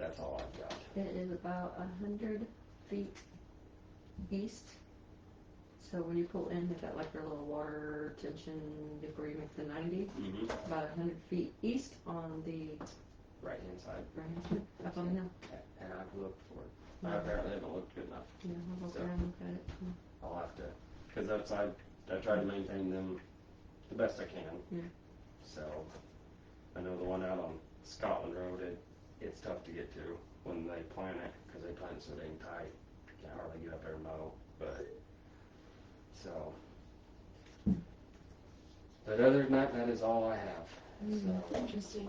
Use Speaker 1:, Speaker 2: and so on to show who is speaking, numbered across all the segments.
Speaker 1: that's all I've got.
Speaker 2: It is about a hundred feet east. So when you pull in, they've got like their little water tension before you make the ninety,
Speaker 1: Mm-hmm.
Speaker 2: about a hundred feet east on the,
Speaker 1: Right hand side,
Speaker 2: right, up on the hill.
Speaker 1: and I've looked for it. I apparently haven't looked good enough.
Speaker 2: Yeah, I'll look around and look at it.
Speaker 1: I'll have to, because that's, I, I try to maintain them the best I can.
Speaker 2: Yeah.
Speaker 1: So, I know the one out on Scotland Road, it, it's tough to get to when they plant it, because they plant so dang tight. Can't hardly get up there and mow, but, so. But other than that, that is all I have,
Speaker 2: Mm-hmm.
Speaker 1: so.
Speaker 3: Hmm, Interesting.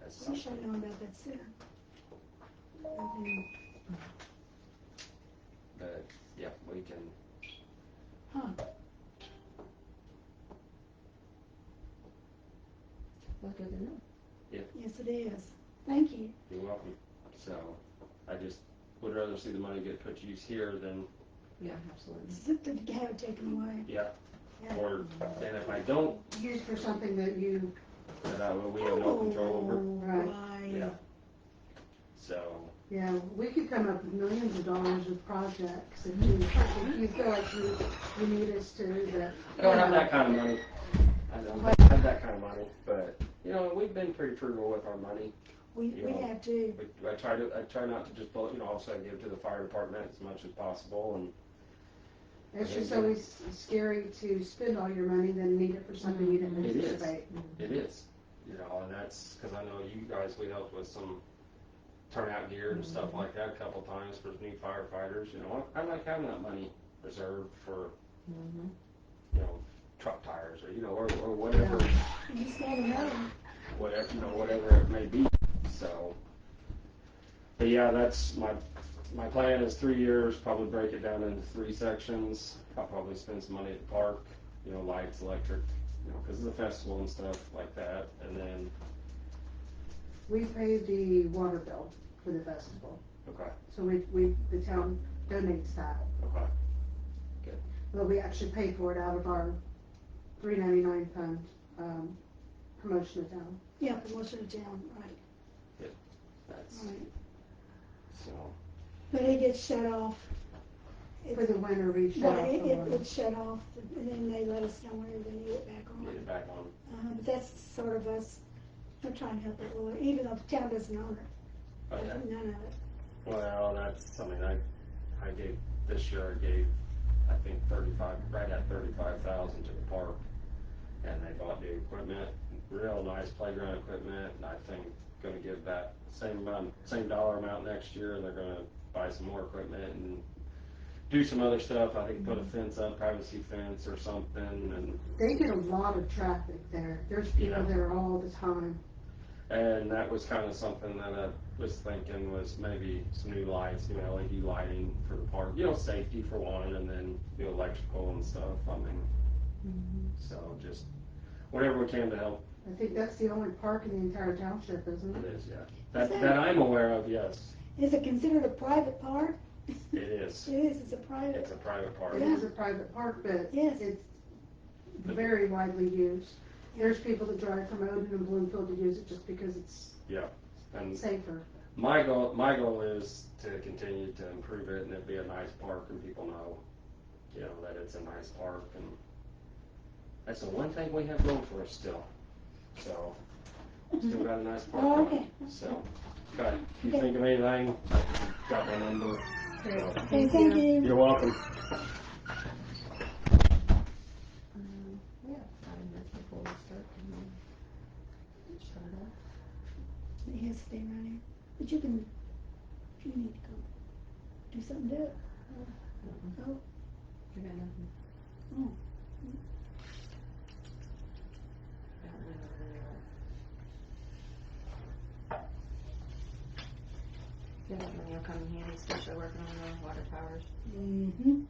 Speaker 1: that's
Speaker 3: I wish I'd
Speaker 1: something.
Speaker 3: known about that sooner. I
Speaker 2: Mm-hmm.
Speaker 3: mean,
Speaker 1: But, yeah, we can,
Speaker 3: Huh,
Speaker 2: Well, good to know.
Speaker 3: yes it is. Thank you.
Speaker 1: you're welcome. So, I just would rather see the money get put to use here than,
Speaker 2: Yeah, absolutely.
Speaker 3: It's good to have it taken away.
Speaker 1: yeah,
Speaker 3: Yeah.
Speaker 1: or, and if I don't
Speaker 4: used for something that you, Oh,
Speaker 1: that I, we have no control over.
Speaker 4: Right.
Speaker 3: Right.
Speaker 1: Yeah. So,
Speaker 4: yeah, we could come up with millions of dollars of projects if you, if you feel like you, you need us to, but.
Speaker 1: I don't have that kind of money. I don't have that kind of money, but, you know, we've been pretty frugal with our money.
Speaker 3: We, we
Speaker 1: Yeah.
Speaker 3: have to,
Speaker 1: We, I try to, I try not to just blow, you know, also I give to the fire department as much as possible and,
Speaker 4: It's just always scary to spend all your money then need it for something you didn't
Speaker 1: It is.
Speaker 4: anticipate.
Speaker 1: It is, you know, and that's because I know you guys. We helped with some turnout gear and stuff like that a couple times for new firefighters. You know, I, I like having that money reserved for
Speaker 2: Mhm.
Speaker 1: you know truck tires or you know or, or whatever,
Speaker 3: you just gotta know.
Speaker 1: whatever you know whatever it may be. So, but yeah, that's my my plan is three years. Probably break it down into three sections. I'll probably spend some money at the park. You know, lights, electric. You know, because of the festival and stuff like that, and then
Speaker 4: We pay the water bill for the festival,
Speaker 1: okay,
Speaker 4: so we, we, the town donates that,
Speaker 1: okay.
Speaker 4: but we actually pay for it out of our three ninety-nine fund, um, promotion of town.
Speaker 3: Yeah, promotion of town, right,
Speaker 1: That's
Speaker 3: right.
Speaker 1: so.
Speaker 3: But it gets shut off.
Speaker 4: For the
Speaker 3: It's-
Speaker 4: winter, we shut
Speaker 3: But
Speaker 4: off
Speaker 3: it,
Speaker 4: the
Speaker 3: it,
Speaker 4: water.
Speaker 3: it's shut off and then they let us know when they need it back
Speaker 1: Get
Speaker 3: on.
Speaker 1: it back on.
Speaker 3: Uh, but that's sort of us, we're trying to help it, well, even though the town doesn't own it,
Speaker 1: Okay.
Speaker 3: none of it.
Speaker 1: Well, that's I mean I I gave this year I gave I think thirty five right at thirty five thousand to the park, and they bought new equipment, real nice playground equipment, and I think gonna give that same amount same dollar amount next year. They're gonna buy some more equipment and do some other stuff. I think put a fence up, privacy fence or something, and
Speaker 4: They get a lot of traffic there. There's people
Speaker 1: Yeah.
Speaker 4: there all the time.
Speaker 1: And that was kind of something that I was thinking was maybe some new lights, you know, LED lighting for the park, you know, safety for one, and then the electrical and stuff. I mean, so just whatever we can to help.
Speaker 4: I think that's the only park in the entire township, isn't
Speaker 1: It
Speaker 4: it?
Speaker 1: is, yeah. That that I'm aware of. Yes,
Speaker 3: Is it considered a private park?
Speaker 1: it is.
Speaker 3: It is, it's a private,
Speaker 1: It's a private park.
Speaker 4: It is a private park, but
Speaker 3: Yes.
Speaker 4: it's very widely used. There's people that drive from Odin and Bloomfield to use it just because it's
Speaker 1: And
Speaker 4: safer.
Speaker 1: my goal, my goal is to continue to improve it and it be a nice park and people know, you know, that it's a nice park and that's the one thing we have going for us still. So, still got a nice park.
Speaker 3: Oh, okay.
Speaker 1: So, got, you think of anything, got my number. So,
Speaker 3: Okay, thank you.
Speaker 1: You're welcome.
Speaker 2: Um, Yeah, five minutes before we start, Mm-hmm. can we start off?
Speaker 3: It has to stay right here. But you can, if you need to go do something to it.
Speaker 2: Mm-mm. You got nothing?
Speaker 3: Oh.
Speaker 2: I don't know where they are. Yeah, that money will come in handy, especially working on the water towers.
Speaker 3: Mm-hmm.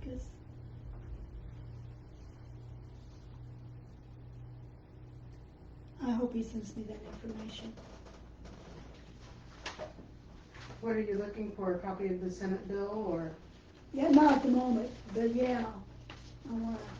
Speaker 3: Because I hope he sends me that information.
Speaker 4: What are you looking for? A copy of the Senate bill or?
Speaker 3: Yeah, not at the moment, but yeah, I want to